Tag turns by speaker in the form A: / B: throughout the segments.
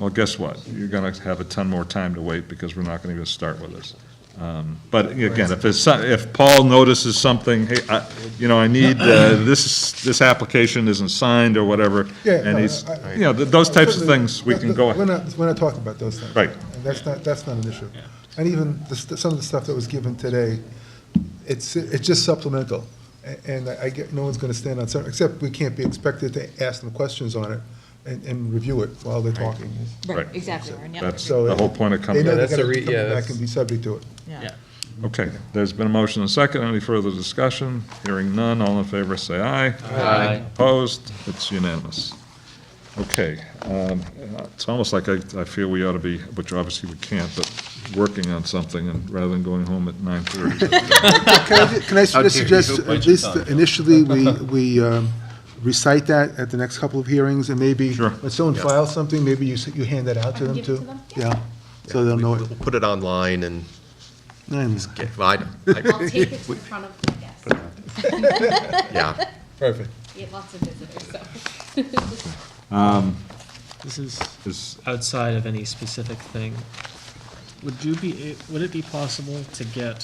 A: Well, guess what? You're gonna have a ton more time to wait because we're not gonna even start with this. Um, But again, if it's, some- if Paul notices something, hey, I, you know, I need, uh, this, this application isn't signed or whatever,
B: Yeah,
A: and
B: no,
A: he's,
B: I-
A: you know, th- those types of things, we can go
B: We're
A: ahead.
B: not, we're not talking about those things.
A: Right.
B: And that's not, that's not an issue. And even the, st- some of the stuff that was given today, it's, it's just supplemental. A- And I I get, no one's gonna stand on certain, except we can't be expected to ask them questions on it and, and review it while they're talking.
A: Right.
C: Right, exactly, Warren, yeah.
A: That's
B: So
A: the whole point of
B: They
A: coming.
B: know they're
D: that's
B: gonna
D: a re-
B: be coming
D: yeah,
B: back
D: that's-
B: and be subject to it.
C: Yeah.
A: Okay, there's been a motion and a second. Any further discussion? Hearing none, all in favor, say aye.
D: Aye.
A: Opposed? It's unanimous. Okay, um, it's almost like I, I feel we ought to be, which obviously we can't, but working on something and rather than going home at nine thirty.
B: Can I ju- can I
D: How
B: just
D: dare you
B: suggest,
D: bite your
B: at least
D: tongue.
B: initially, we, we um, recite that at the next couple of hearings, and maybe,
A: Sure.
B: when someone files something, maybe you, s- you hand that out to them,
C: give it
B: too?
C: to them?
B: Yeah, so they'll know it.
E: We'll put it online and
B: I know.
E: get, well, I don't- I-
C: I'll take it in front of the guests.
E: yeah.
B: Perfect.
C: We have lots of visitors, so.
F: This is outside of any specific thing. Would you be, a- would it be possible to get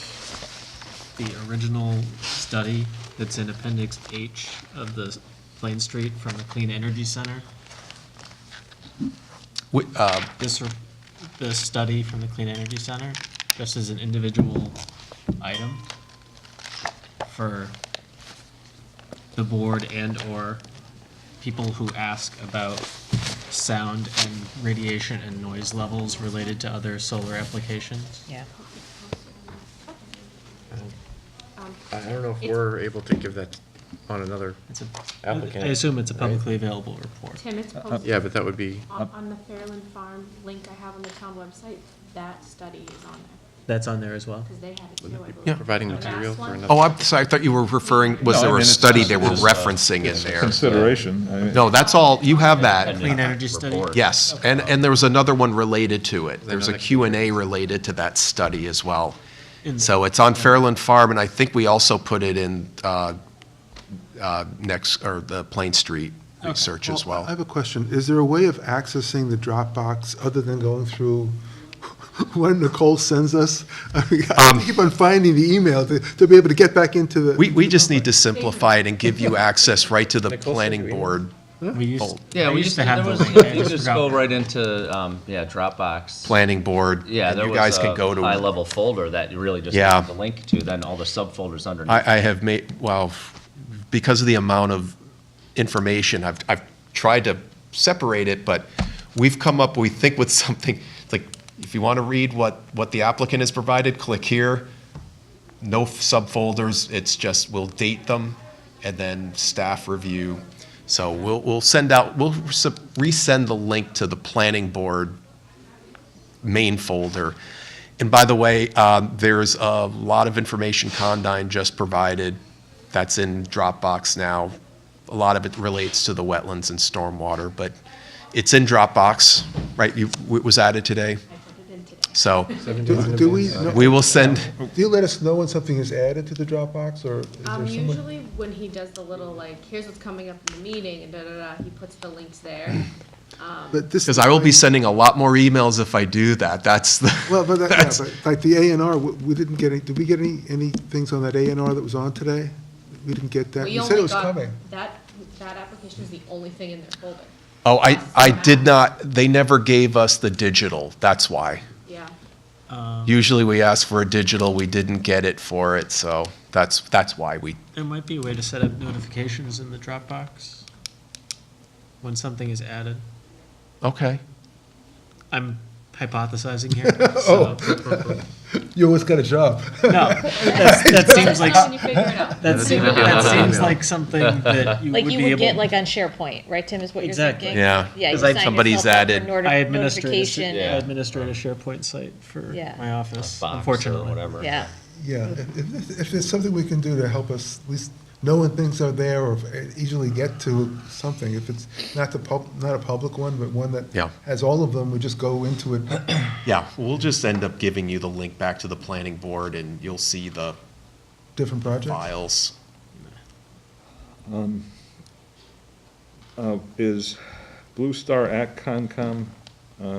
F: the original study that's in Appendix H of the Plain Street from the Clean Energy Center?
E: We-
D: uh,
E: um,
F: This, r- this study from the Clean Energy Center, just as an individual item for the board and/or people who ask about sound and radiation and noise levels related to other solar applications?
C: Yeah.
G: Um,
D: I don't know if we're able to give that on another,
F: It's a-
D: Applicant,
F: I assume it's a
D: right?
F: publicly available report.
G: Tim,
B: Uh,
G: it's posted.
D: yeah, but that would be,
G: On, on the Fairland Farm link I have on the town website, that study is on there,
F: That's on there as well?
G: because they had it too, I believe.
D: providing
G: The
D: material
G: last
D: for
G: one.
D: another.
E: Oh, I'm, sorry, I thought you were referring, was there a study they were referencing in there?
A: Consideration. uh, I mean,
E: No, that's all, you have that.
F: Clean energy study?
E: Yes, and, and there was another one related to it. There's a
D: Another-
E: Q and A related to that study as well.
F: In-
E: So it's on Fairland Farm, and I think we also put it in uh, uh, next, or the Plain Street research as
B: I
E: well.
B: have a question. Is there a way of accessing the Dropbox other than going through what Nicole sends us? I mean, I keep on finding the email to, to be able to get back into the.
E: Um, We, we just need to simplify it and give you access right to the planning board,
F: We used,
H: Yeah,
F: I
H: we
F: used
H: just,
F: to have
H: there
F: the
H: was,
F: link. I
H: you just
F: forgot
H: go
F: that.
H: right into, um, yeah, Dropbox.
E: planning board.
H: Yeah,
E: and
H: there
E: you guys
H: was
E: can
H: a
E: go to.
H: high-level folder that you really just
E: Yeah.
H: have the link to, then all the subfolders underneath.
E: I, I have made, well, f- because of the amount of information, I've, I've tried to separate it, but we've come up, we think with something, it's like, if you want to read what, what the applicant has provided, click here. No f- subfolders, it's just, we'll date them and then staff review. So we'll, we'll send out, we'll sub- resend the link to the planning board main folder. And by the way, um, there's a lot of information Condyne just provided that's in Dropbox now. A lot of it relates to the wetlands and stormwater, but it's in Dropbox, right? You, it was added today.
G: I put it in today.
E: So
B: Do do we, know-
E: we will send,
B: do you let us know when something is added to the Dropbox, or is there
G: Um,
B: someone?
G: usually when he does the little like, here's what's coming up in the meeting and da-da-da, he puts the links there.
B: But this-
E: because I will be sending a lot more emails if I do that. That's the.
B: Well, but, that- yeah,
E: that's-
B: but like the A and R, we we didn't get any, did we get any, any things on that A and R that was on today? We didn't get that.
G: We
B: You said it
G: only
B: was
G: got,
B: coming.
G: that, that application is the only thing in their folder,
E: Oh, I, I did not, they never gave us the digital. That's why.
G: yeah.
F: Uh,
E: Usually we ask for a digital, we didn't get it for it, so that's, that's why we,
F: There might be a way to set up notifications in the Dropbox when something is added.
E: okay.
F: I'm hypothesizing here. so-
B: You always got a job.
F: No, that's, that seems like,
G: When you figure it out.
F: that seems, that seems like something that you would
I: Like
F: be
I: you would get
F: able.
I: like on SharePoint, right, Tim, is what you're
F: Exactly.
I: thinking?
E: Yeah.
I: Yeah. you
F: 'Cause I-
I: sign
E: somebody's
I: yourself up for
E: added-
I: noti-
F: I administrate, a sh-
I: notification.
F: I administrate a SharePoint site for
I: Yeah.
F: my office,
H: Box or
F: unfortunately.
H: whatever.
I: Yeah.
B: Yeah, if- if, if there's something we can do to help us, at least know when things are there or easily get to something, if it's not the pub, not a public one, but one that
E: Yeah.
B: has all of them, we just go into it.
E: Yeah, we'll just end up giving you the link back to the planning board and you'll see the
B: Different projects.
E: files.
A: Uh, Is Blue Star at Concom